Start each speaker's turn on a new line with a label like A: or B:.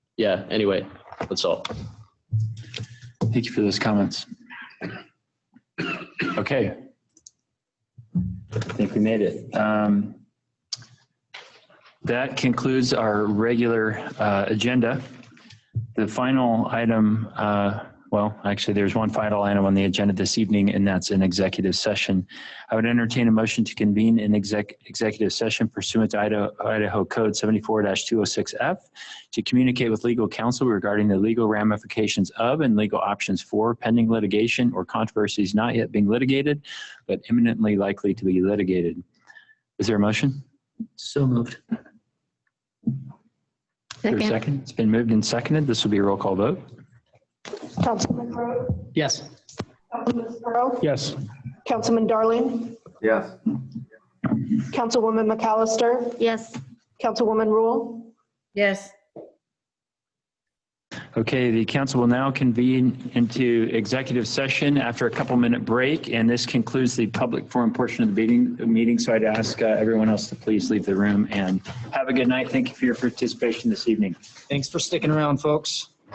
A: yeah, anyway, that's all.
B: Thank you for those comments. Okay. I think we made it. Um, That concludes our regular uh, agenda. The final item, uh, well, actually, there's one final item on the agenda this evening, and that's an executive session. I would entertain a motion to convene an exec, executive session pursuant to Idaho, Idaho Code 74-206F to communicate with legal counsel regarding the legal ramifications of and legal options for pending litigation or controversies not yet being litigated, but imminently likely to be litigated. Is there a motion?
C: So moved.
B: Is there a
D: Second.
B: It's been moved and seconded. This will be a roll call vote.
E: Councilman Rowe,
C: Yes.
E: Councilman Sparrow,
B: Yes.
E: Councilman Darling,
F: Yes.
E: Councilwoman McAllister,
D: Yes.
E: Councilwoman Rule,
D: Yes.
B: Okay, the council will now convene into executive session after a couple minute break, and this concludes the public forum portion of the meeting, meeting. So I'd ask uh, everyone else to please leave the room and have a good night. Thank you for your participation this evening.
C: Thanks for sticking around, folks.